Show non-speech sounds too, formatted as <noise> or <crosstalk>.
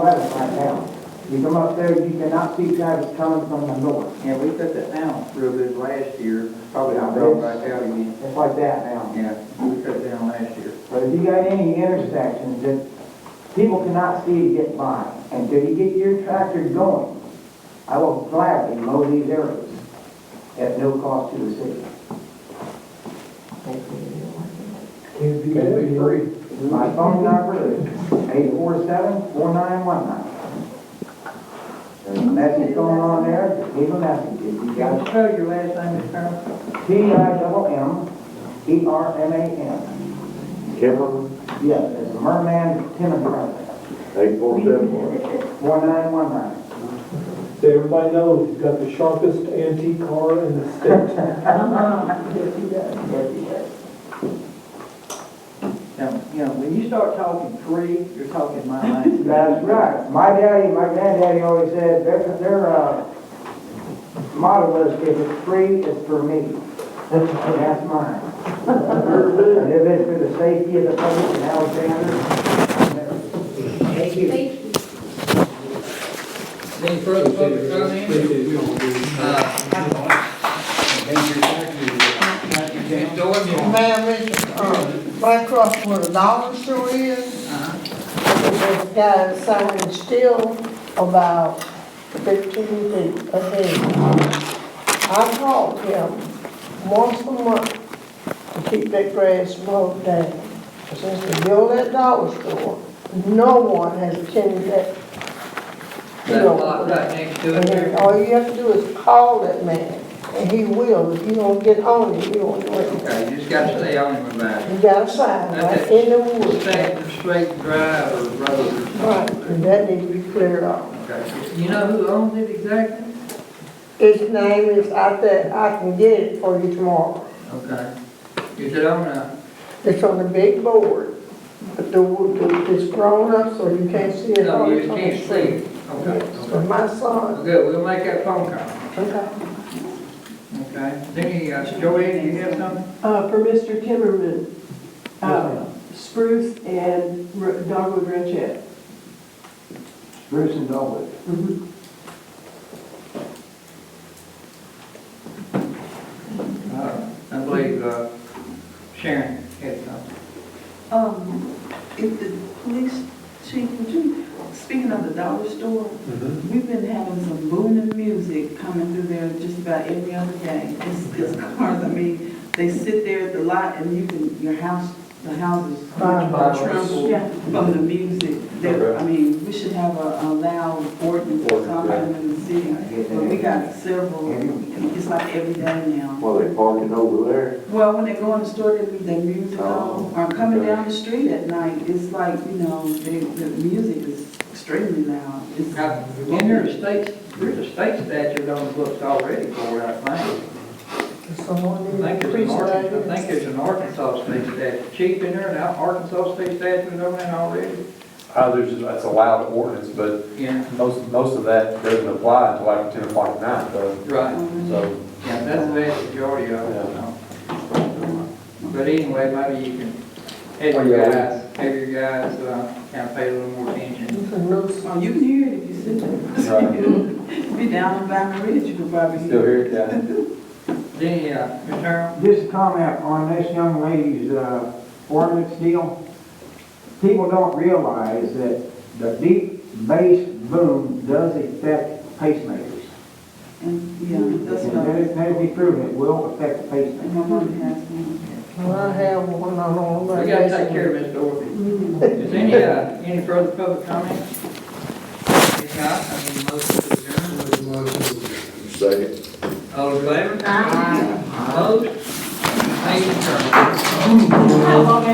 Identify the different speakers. Speaker 1: letters right now. You come up there, you cannot see traffic coming from the north.
Speaker 2: Yeah, we cut that down real good last year, probably not
Speaker 1: Yeah,
Speaker 2: broke
Speaker 1: it's-
Speaker 2: back out again.
Speaker 1: It's like that now.
Speaker 2: Yeah, we cut it down last year.
Speaker 1: But if you got any intersections that people cannot see to get by, until you get your tractor going, I will gladly mow these areas at no cost to the city.
Speaker 3: It'd be free.
Speaker 1: My phone number is eight four seven four nine one nine. There's a message going on there, leave a message if you got it.
Speaker 2: spell your last name, Mr. Colonel?
Speaker 1: T I double M E R M A N.
Speaker 4: Kevin,
Speaker 1: Yes, it's Merman Tenant Brothers,
Speaker 4: eight four seven one.
Speaker 1: one nine one nine.
Speaker 3: Everybody knows he's got the sharpest antique car in the state.
Speaker 2: Now, you know, when you start talking free, you're talking my language.
Speaker 1: <laughs> That's right. My daddy, my granddaddy always said, their, their, uh, motto was, if it's free, it's for me. And that's <laughs> mine. And if it's for the safety of the public in Alexander, thank you.
Speaker 5: Any further public comment?
Speaker 6: Ma'am, it's, uh, right across where the dollar store is. There's a guy selling steel about fifteen feet ahead. I called him once a month to keep that grass mowed down. Since they built that dollar store, no one has attended that.
Speaker 5: That
Speaker 6: field.
Speaker 5: lot right next to it
Speaker 6: And then
Speaker 5: there.
Speaker 6: all you have to do is call that man, and he will, if you don't get on it, you won't do anything.
Speaker 2: Okay, you just gotta stay on him about it.
Speaker 6: You got a sign right in the woods.
Speaker 2: Straight, straight drive or road or
Speaker 6: Right,
Speaker 2: something.
Speaker 6: and that needs to be cleared off.
Speaker 2: Okay. You know who owns it exactly?
Speaker 6: His name is out there, I can get it for you tomorrow.
Speaker 2: Okay. Is it on a,
Speaker 6: It's on the big board, but the, the- it's grown up, so you can't see it.
Speaker 2: no,
Speaker 6: all
Speaker 2: you
Speaker 6: the
Speaker 2: can't see
Speaker 6: time.
Speaker 2: it? Okay,
Speaker 6: It's for
Speaker 2: okay.
Speaker 6: my son.
Speaker 2: Good, we'll make that phone call,
Speaker 6: Okay.
Speaker 2: okay? Then you, uh, Joanne, you have something?
Speaker 7: Uh, for Mr. Timmerman, uh, spruce and r- dogwood ranchette.
Speaker 1: Bruce and Dolwood.
Speaker 2: Uh, I believe uh, Sharon had something.
Speaker 8: Um, if the police chief, would you, speaking of the dollar store, we've been having some booming music coming through there just about every other day. It's, it's cars, I mean, they sit there at the lot and you can, your house, the houses are tremble
Speaker 7: Yeah.
Speaker 8: from the music. There, I mean, we should have a, a loud ordinance or something in the city, but we got several, it's like every day now.
Speaker 4: Well, they parking over there.
Speaker 8: Well, when they go in the store, they leave their music
Speaker 9: Oh,
Speaker 8: on, or coming
Speaker 4: okay.
Speaker 8: down the street at night, it's like, you know, the, the music is extremely loud. It's-
Speaker 2: Now, In there, the state, there's a state statute on the books already for it, I think.
Speaker 6: Someone
Speaker 2: I
Speaker 6: needs
Speaker 2: think
Speaker 6: to
Speaker 2: there's
Speaker 6: preach
Speaker 2: an
Speaker 6: that.
Speaker 2: Arkansas, I think there's an Arkansas state statute, chief in there, and an Arkansas state statute on that already.
Speaker 9: Uh, there's, that's a loud ordinance, but
Speaker 2: Yeah,
Speaker 9: most, most of that doesn't apply until after ten o'clock at night, though,
Speaker 2: right,
Speaker 8: Um,
Speaker 9: so.
Speaker 2: yeah, that's the vast majority of it, you know. But anyway, maybe you can, have your guys, have your guys, uh, kind of pay a little more attention.
Speaker 6: It's a nuisance.
Speaker 8: Oh, you can hear it if you sit there. <laughs> Be down on Vine Ridge, you can probably hear it.
Speaker 9: Still here, yeah.
Speaker 2: Then, uh, Mr. Herman,
Speaker 1: Just a comment on this young lady's uh, ordinance deal. People don't realize that the deep bass boom does affect pacemakers.
Speaker 8: And, yeah, that's
Speaker 1: And
Speaker 8: what I,
Speaker 1: that has been proven, it will affect the pacemaker.
Speaker 8: and my mom has one.
Speaker 6: Well, I have one, I don't know.
Speaker 2: we gotta take care of Miss Dorothy. Is any, uh, any further public comment? If not, I need a motion to adjourn.
Speaker 4: Second.
Speaker 2: All in favor? Aye. Opposed? Thank you, Colonel.